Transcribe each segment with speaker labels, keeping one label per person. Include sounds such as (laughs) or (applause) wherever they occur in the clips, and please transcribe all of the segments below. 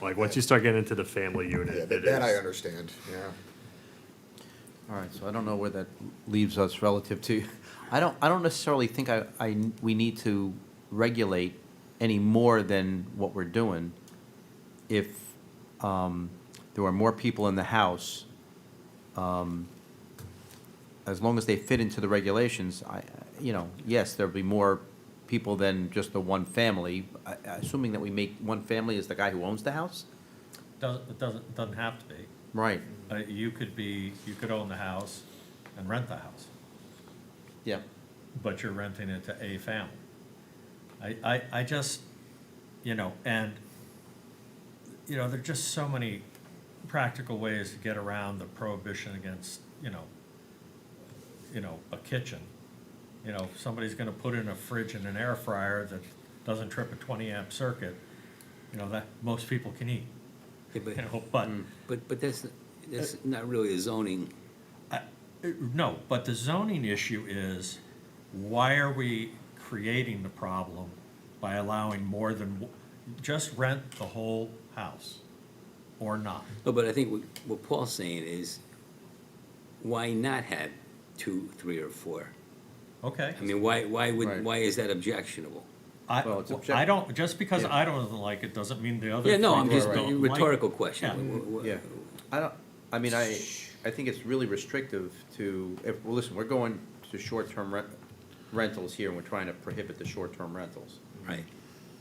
Speaker 1: Like, once you start getting into the family
Speaker 2: Yeah,
Speaker 1: unit,
Speaker 2: that
Speaker 1: it
Speaker 2: that I
Speaker 1: is,
Speaker 2: understand, yeah.
Speaker 3: All right, so I don't know where that leaves us relative to, I don't, I don't necessarily think I, I, we need to regulate any more than what we're doing. If, um, there are more people in the house, um, as long as they fit into the regulations, I, you know, yes, there'll be more people than just the one family, I- assuming that we make, one family is the guy who owns the house?
Speaker 4: Doesn't, it doesn't, doesn't have to be.
Speaker 3: Right,
Speaker 4: Uh, you could be, you could own the house and rent the house,
Speaker 3: yeah,
Speaker 4: but you're renting it to a family. I, I, I just, you know, and, you know, there are just so many practical ways to get around the prohibition against, you know, you know, a kitchen. You know, if somebody's gonna put in a fridge and an air fryer that doesn't trip a twenty amp circuit, you know, that most people can eat,
Speaker 5: Yeah,
Speaker 4: you
Speaker 5: but,
Speaker 4: know, (laughs) but
Speaker 5: but, but that's, that's not really a zoning,
Speaker 4: Uh, No, but the zoning issue is, why are we creating the problem by allowing more than, w- just rent the whole house or not?
Speaker 5: No, but I think what- what Paul's saying is, why not have two, three, or four?
Speaker 4: Okay,
Speaker 5: I mean, why, why
Speaker 3: Right.
Speaker 5: would, why is that objectionable?
Speaker 4: I,
Speaker 3: Well, it's object-
Speaker 4: I don't, just because
Speaker 3: Yeah.
Speaker 4: I don't like it doesn't mean the other.
Speaker 5: Yeah, no,
Speaker 4: three
Speaker 5: I'm just,
Speaker 4: don't like it.
Speaker 5: rhetorical question.
Speaker 4: Yeah.
Speaker 5: Wh- wh-
Speaker 3: Yeah, I don't, I mean, I, I think it's really restrictive to, if, well, listen, we're going to short-term rent, rentals here, and we're trying to prohibit the short-term rentals.
Speaker 5: Right,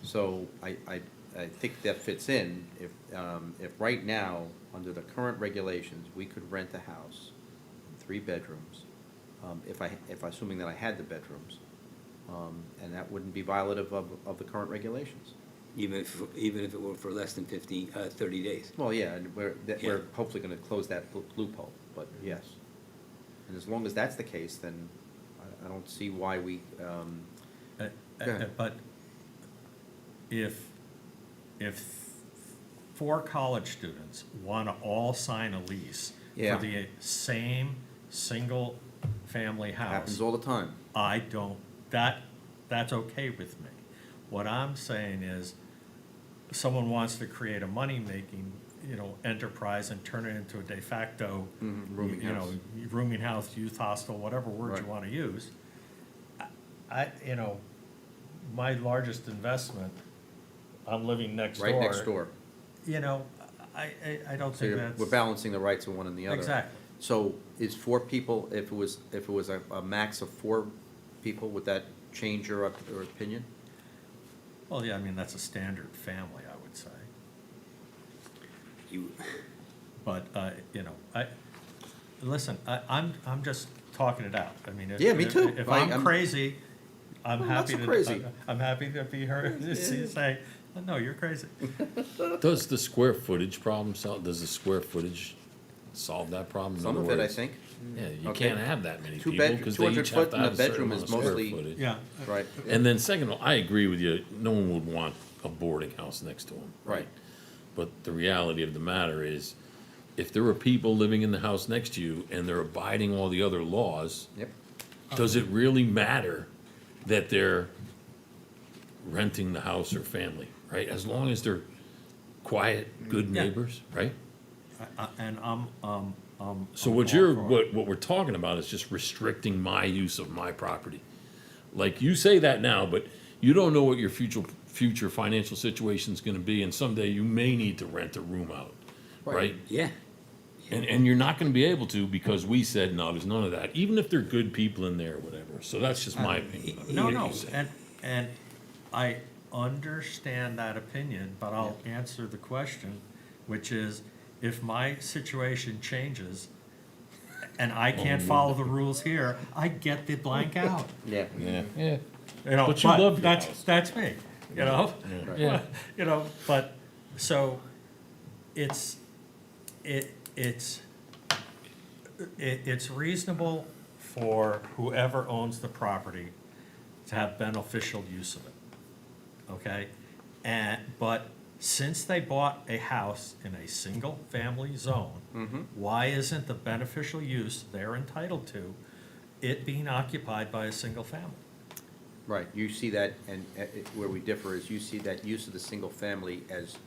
Speaker 3: So I, I, I think that fits in, if, um, if right now, under the current regulations, we could rent a house, three bedrooms, um, if I, if assuming that I had the bedrooms, um, and that wouldn't be violative of, of the current regulations.
Speaker 5: even if, even if it were for less than fifty, uh, thirty days.
Speaker 3: Well, yeah, and we're, that,
Speaker 5: Yeah.
Speaker 3: we're hopefully gonna close that lo- loophole, but yes. And as long as that's the case, then I, I don't see why we, um,
Speaker 4: Uh, uh,
Speaker 3: Go ahead.
Speaker 4: But if, if four college students want to all sign a lease
Speaker 3: Yeah.
Speaker 4: for the same single-family house,
Speaker 3: happens all the time.
Speaker 4: I don't, that, that's okay with me. What I'm saying is, someone wants to create a money-making, you know, enterprise and turn it into a de facto,
Speaker 3: Mhm, rooming
Speaker 4: you know, rooming house, youth hostel, whatever word you
Speaker 3: Right.
Speaker 4: want to use. I- I, you know, my largest investment, I'm living next door.
Speaker 3: Right next door.
Speaker 4: You know, I, I, I don't
Speaker 3: So
Speaker 4: think
Speaker 3: you're,
Speaker 4: that's.
Speaker 3: we're balancing the rights of one and the other.
Speaker 4: Exactly.
Speaker 3: So is four people, if it was, if it was a, a max of four people, would that change your, op- your opinion?
Speaker 4: Well, yeah, I mean, that's a standard family, I would say.
Speaker 5: You,
Speaker 4: But, uh, you know, I, listen, I, I'm, I'm just talking it out. I mean, if.
Speaker 3: Yeah, me
Speaker 4: if-
Speaker 3: too.
Speaker 4: If
Speaker 3: I-
Speaker 4: I'm
Speaker 3: I'm-
Speaker 4: crazy, I'm
Speaker 3: I'm not
Speaker 4: happy
Speaker 3: so
Speaker 4: to. uh,
Speaker 3: crazy.
Speaker 4: I'm happy to
Speaker 3: (laughs)
Speaker 4: be heard, (laughs) to see- say, no, you're crazy.
Speaker 6: Does the square footage problem solve, does the square footage solve that problem? In
Speaker 3: Some
Speaker 6: other
Speaker 3: of it, I
Speaker 6: words,
Speaker 3: think,
Speaker 6: Yeah, you
Speaker 3: Okay.
Speaker 6: can't have that many
Speaker 3: Two
Speaker 6: people,
Speaker 3: bedroom-
Speaker 6: because they
Speaker 3: 200
Speaker 6: each have
Speaker 3: foot
Speaker 6: to
Speaker 3: in a
Speaker 6: have a certain
Speaker 3: bedroom is
Speaker 6: amount of square
Speaker 3: mostly-
Speaker 6: footage.
Speaker 4: Yeah.
Speaker 3: right?
Speaker 6: And then second, of all, I agree with you, no one would want a boarding house next to them.
Speaker 3: Right.
Speaker 6: But the reality of the matter is, if there are people living in the house next to you and they're abiding all the other laws,
Speaker 3: Yep,
Speaker 6: does it really matter that they're renting the house or family, right? As long as they're quiet, good
Speaker 4: Yeah.
Speaker 6: neighbors, right?
Speaker 4: I- I- uh, And I'm, um, um.
Speaker 6: So
Speaker 4: I'm
Speaker 6: what
Speaker 4: all
Speaker 6: you're,
Speaker 4: for it.
Speaker 6: what, what we're talking about is just restricting my use of my property. Like, you say that now, but you don't know what your future, future financial situation's gonna be, and someday you may need to rent a room out, right?
Speaker 5: yeah,
Speaker 6: And, and you're not gonna be able to because we said, no, there's none of that, even if they're good people in there, or whatever. So that's just my opinion. of it.
Speaker 4: Uh, No,
Speaker 6: What
Speaker 4: no,
Speaker 6: you say.
Speaker 4: and, and I understand that opinion, but I'll answer the question, which is, if my situation changes and I
Speaker 6: Oh,
Speaker 4: can't follow the rules here, I get the blank out,
Speaker 3: yeah.
Speaker 6: Yeah, yeah.
Speaker 4: you know,
Speaker 6: But you love
Speaker 4: but
Speaker 6: your
Speaker 4: that's,
Speaker 6: house.
Speaker 4: that's me, you know?
Speaker 3: Right.
Speaker 6: Yeah.
Speaker 4: (laughs) You know, but, so, it's, it, it's, it, it's reasonable for whoever owns the property to have beneficial use of it, okay? And, but since they bought a house in a single-family
Speaker 3: Mm-hmm.
Speaker 4: zone,
Speaker 6: Mm-hmm.
Speaker 4: why isn't the beneficial use they're entitled to it being occupied by a single family?
Speaker 3: Right, you see that, and uh, it- where we differ is you see that use of the single family as